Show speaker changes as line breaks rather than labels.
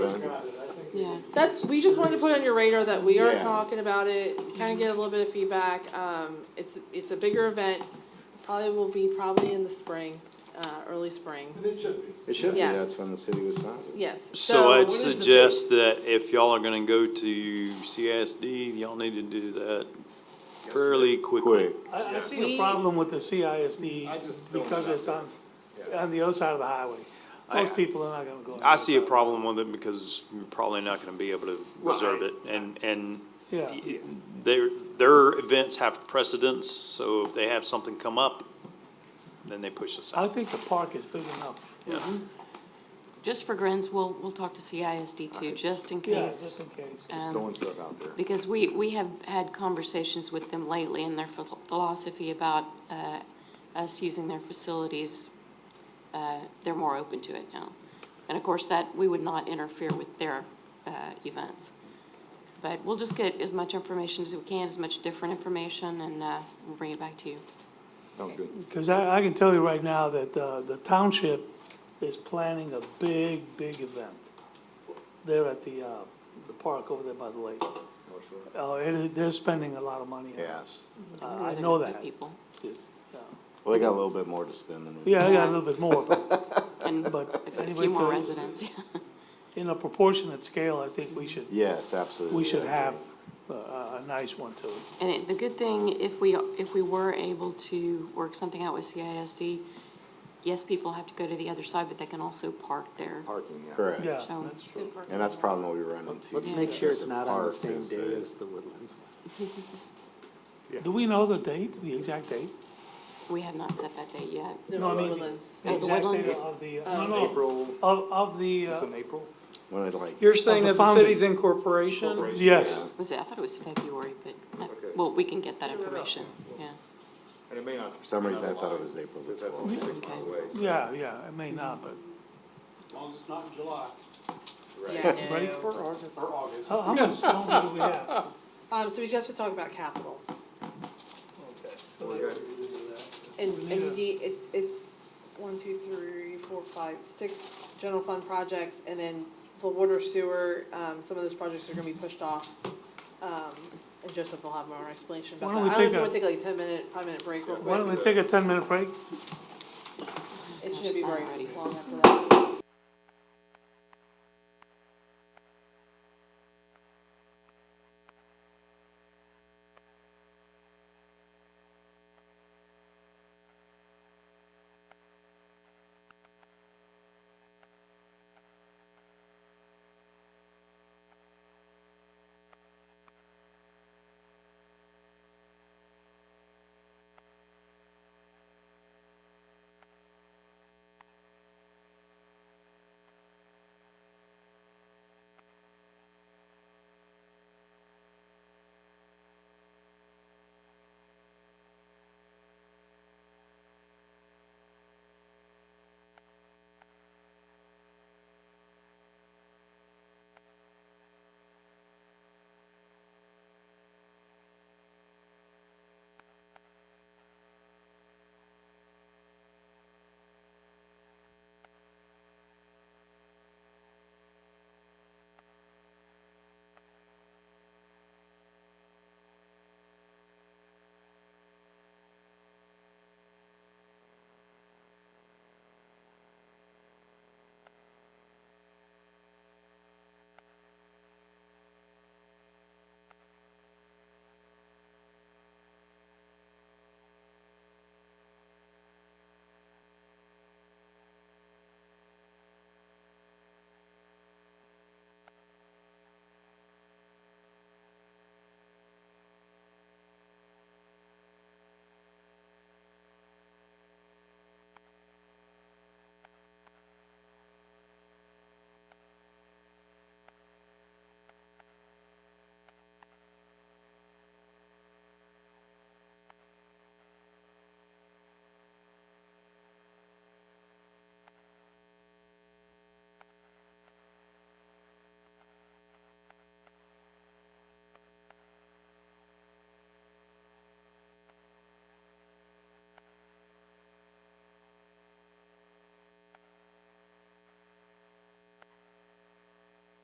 Yeah, that's, we just wanted to put on your radar that we are
Yeah.
talking about it, kinda get a little bit of feedback, um, it's, it's a bigger event. Probably will be probably in the spring, uh, early spring,
And it should be.
It should be,
Yes.
that's when the city was founded.
yes,
So
so,
I'd
what is the date?
suggest that if y'all are gonna go to CISD, y'all need to do that fairly quickly.
Quick,
I, I see
We-
a problem with the
I
CISD
just don't
because
know.
it's on, on the other side of the highway.
I-
Most people are not gonna go. on
I
the
see a
other
problem with it because you're probably not gonna be able to reserve it and, and
side. Yeah,
their, their events have precedence, so if they have something come up, then they push us
I
out.
think the park is big enough.
Yeah.
Just for grins, we'll, we'll talk to CISD too, just in
Yeah,
case.
just in case.
Uh,
just throwing stuff out there.
Because we, we have had conversations with them lately and their phil- philosophy about, uh, us using their facilities, uh, they're more open to it now. And of course, that, we would not interfere with their, uh, events. But we'll just get as much information as we can, as much different information, and, uh, we'll bring it back to you.
Sounds good.
Because I, I can tell you right now that, uh, the township is planning a big, big event. There at the, uh, the park over there by the lake. Oh, it is, they're spending a lot of money. on it.
Yes.
Uh,
We're
I
the-
know
the
that.
People,
It's, uh,
Well, they got a little bit more to spend than we.
Yeah, I got a little bit more, but,
and a
but anyway.
few more
so
residents, yeah.
In a proportionate scale, I think we should
Yes, absolutely.
we should
I
have
agree.
a, a a nice one too.
And it- the good thing, if we, if we were able to work something out with CISD, yes, people have to go to the other side, but they can also park there.
Parking, yeah. Correct.
Yeah,
So-
that's true.
And that's probably what we run into.
Let's make sure it's not on the
Park
same
is,
day
uh,
as the Woodlands one.
Do we know the date, the exact date?
We have not set that date yet.
No, I
no,
mean-
Woodlands.
At the
exact date
Woodlands?
Of Oh, the, no, no, of, of the, uh,
April?
When it like,
You're saying
the
that the
founding.
city's incorporation?
yes,
Was it, I thought it was February, but, uh,
Okay.
well, we can get that information, yeah.
And it may not.
for some reason I thought it was April the
Because that's
twelfth.
only six months away. so-
yeah, yeah, it may not, but.
As long as it's not in July
Right.
Break
for
or August.
Oh, How, how much longer do we have?
Um, so we just have to talk about capital,
We're good.
and,
need
and
a-
the, it's, it's one, two, three, four, five, six general fund projects, and then the water sewer, um, some of those projects are gonna be pushed off. Um, and Joseph will have more explanation about that,
Why
I
don't
don't
we
know if
take
you wanna
a-
take like a ten minute, five minute break real quick.
Why don't we take a ten minute break?
It shouldn't be very
Alrighty.
long after that.